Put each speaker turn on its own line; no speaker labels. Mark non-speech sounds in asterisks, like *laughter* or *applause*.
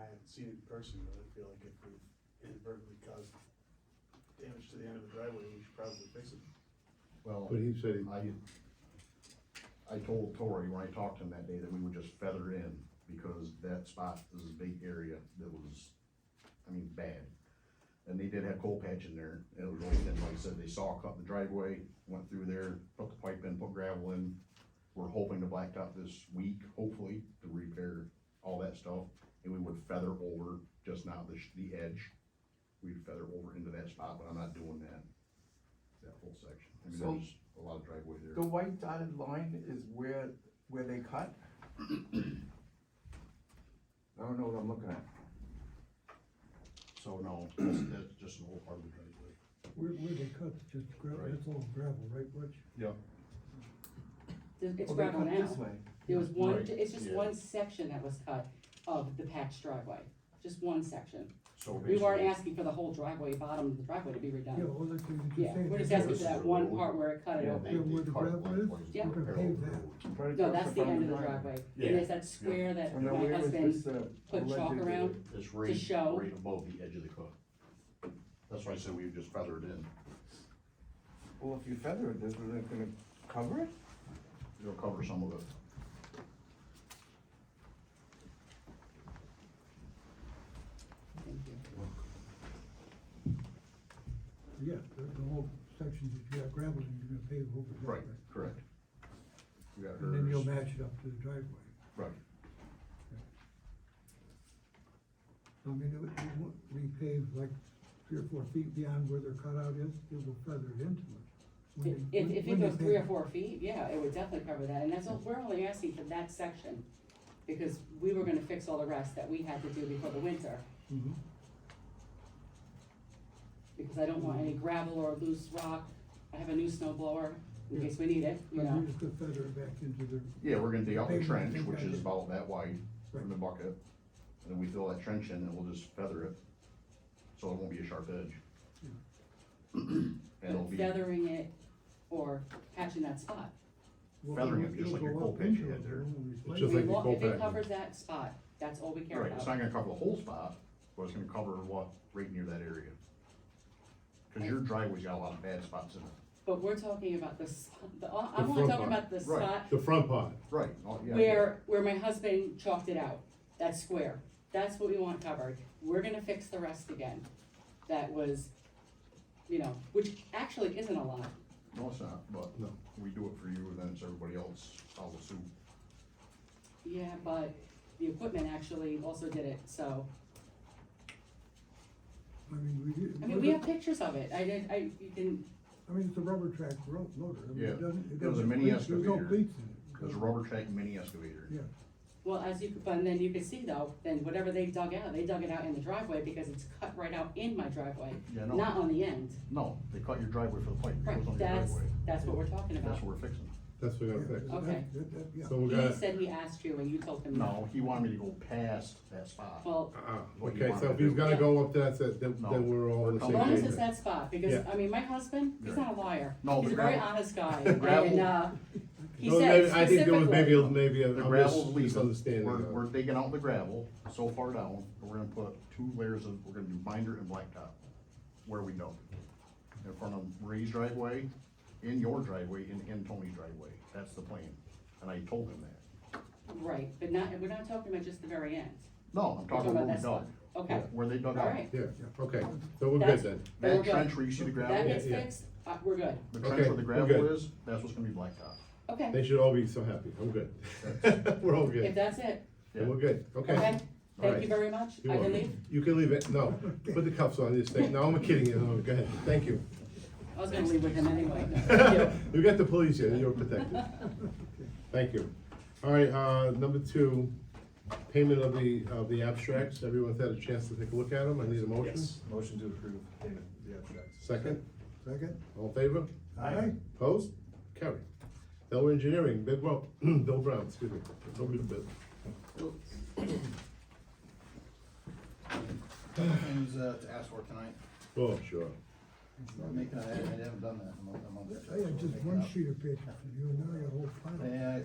haven't seen it in person, but I feel like if we've inadvertently caused damage to the end of the driveway, we should probably fix it.
Well,
But he said, he-
I, I told Tori when I talked to him that day that we would just feather in, because that spot is a big area that was, I mean, bad. And they did have coal patch in there, and it was only thin, like I said, they saw, cut the driveway, went through there, put the pipe in, put gravel in. We're hoping to blacktop this week, hopefully, to repair all that stuff, and we would feather over, just not the, sh- the edge. We'd feather over into that spot, but I'm not doing that, that whole section. I mean,
So-
there's a lot of driveway there.
The white dotted line is where, where they *coughs* cut? I don't know what I'm looking at.
So no, that's, that's just an old part of the driveway.
where, where they cut, just gravel,
Right.
that's all gravel, right, Rich?
Yep.
There's- It's
Oh, they
gravel
cut This
now.
way.
There was one,
Right,
it's just
yeah.
one section that was cut of the patch driveway, just one section.
So
We weren't
basically-
asking for the whole driveway, bottom of the driveway to be
Yeah,
redone.
all that thing you
Yeah,
just saying.
we're just
Yeah,
asking
this
for
is
that
the
one
road.
part where it cut it
Yeah,
over.
they- they
where the
cut it
gravel is,
lengthwise
Yeah.
to
we're gonna
parallel
pave that.
road.
Right
No,
across
that's the
front
end of the
line.
driveway.
Yeah.
And there's that square that
And then
my
where was
husband
this, uh?
put chalk
alleged-
around.
It's right,
show.
right above the edge of the cut. That's why I said we would just feather it in.
Well, if you feather it, isn't it gonna cover it?
It'll cover some of it.
Thank you.
Yeah, the, the whole section that you got gravel in, you're gonna pave over that.
Right, correct. We got
And then you'll
hers.
match it up to the driveway.
Right.
I mean, it would- it would- we pave like three or four feet beyond where their cutout is, it will feather it into it. When
If,
they-
if
when-
if
when
it
they
goes three or
pave-
four feet, yeah, it would definitely cover that, and that's, all- we're only asking for that section. Because we were gonna fix all the rest that we had to do before the winter,
Mhm.
because I don't want any gravel or loose rock. I have a new snow blower in case we need it, you
But
know,
you're just gonna feather it back into their,
Yeah, we're gonna dig out the
Pavement,
trench,
pavement.
which is about that wide from the
Right.
bucket. And then we fill that trench in and we'll just feather it. So it won't be a sharp edge.
Yeah.
And it'll be.
feathering it or patching that spot.
well,
Feathering it
it'll-
just like
it'll
your
go
coal
up
patch
into
you had
it,
there.
it won't
It's
replace it.
We
just like the
want, if
coal
it
patch.
covers that spot, that's all we care
Right, it's
about.
not gonna cover the whole spot, but it's gonna cover what, right near that area. Cause your driveway's got a lot of bad spots in it.
But we're talking about the, s- the,
The
I'm only
front
talking
part,
about the
right.
spot
The front part,
Right. oh, yeah,
where, where my husband chalked it out, that square, that's what we want covered. We're gonna fix the rest again. That was, you know, which actually isn't a lot.
No, it's not, but
No.
we do it for you, and then it's everybody else, follow suit.
Yeah, but the equipment actually also did it, so,
I mean, we do.
I mean, we have pictures of it. I did, I, you can,
I mean, it's a rubber track ro- loader. I mean, it
Yeah. It
doesn't-
was a
doesn't
mini
bleed- There's no
excavator.
bleeds in it.
There's a rubber track mini excavator.
Yeah,
well, as you, could- but then you can see though, then whatever they dug out, they dug it out in the driveway because it's cut right out in my driveway,
Yeah, no.
not on the end.
No, they cut your driveway for the pipe, it
Right,
goes on your
that's,
driveway.
that's what we're talking about.
That's what we're fixing.
that's what
yeah.
we gotta fix.
Okay.
that- that- that- yeah.
So we
He
gotta,
said he asked you and you told him no.
No, he wanted me to go past that spot.
Well,
uh,
What you
okay,
wanna
so if he's
do.
gonna go up that, then,
No.
then we're all on the
As
as
same
long as it's
page.
that spot, because,
Yeah.
I mean, my husband, he's not a liar.
No,
He's
the
a very
gravel-
honest guy,
the gravel-
and, uh, he
No,
said
maybe- I think there was maybe,
specifically,
a- maybe a
The
a
gravel's
mis-
leaving,
misunderstanding.
we're,
of-
we're digging out the gravel so far down, and we're gonna put two layers of, we're gonna do binder and blacktop where we dump. In front of Ray's driveway, in your driveway, and in Tony's driveway, that's the plan, and I told him that.
right, but not, we're not talking about just the very end.
No, I'm
We're
talking where
that
we
spot.
dug.
Okay,
Yeah, Where they dug out.
alright,
Yeah, okay, so we're good
That's-
then.
Very
That
good.
trench where you see the
that
gravel,
gets
yeah.
fixed, uh, we're good,
the trench
Okay,
where the
we're
gravel
good.
is, that's what's gonna be blacktop.
They
okay,
should all be so happy, I'm good. We're all
if
good, *laughs*
that's it,
Yeah.
we're good, okay.
okay? Thank you
right.
very much,
You're
I can
welcome.
leave,
You can leave it, no, put the cuffs on this thing, no, I'm kidding you, no, go ahead, thank you.
I was gonna leave with him
*laughs*
anyway.
You got the police here, you're protected. Thank you. All right, uh, number two, payment of the, of the abstracts. Everyone's had a chance to take a look at them. I need a motion.
Motion to approve payment of the abstracts.
Second,
Second?
all in favor?
Aye.
Opposed? Carry. Delaware Engineering, Bill Brown, *clears throat* Bill Brown, excuse me. Over to Bill.
Couple things uh, to ask for tonight,
Oh, sure.
I'm making, I haven't I haven't done that in a month, a month or two,
I
so we're
had just
making
one
up.
sheet of paper for you, and now I got a whole pile.
Yeah, I-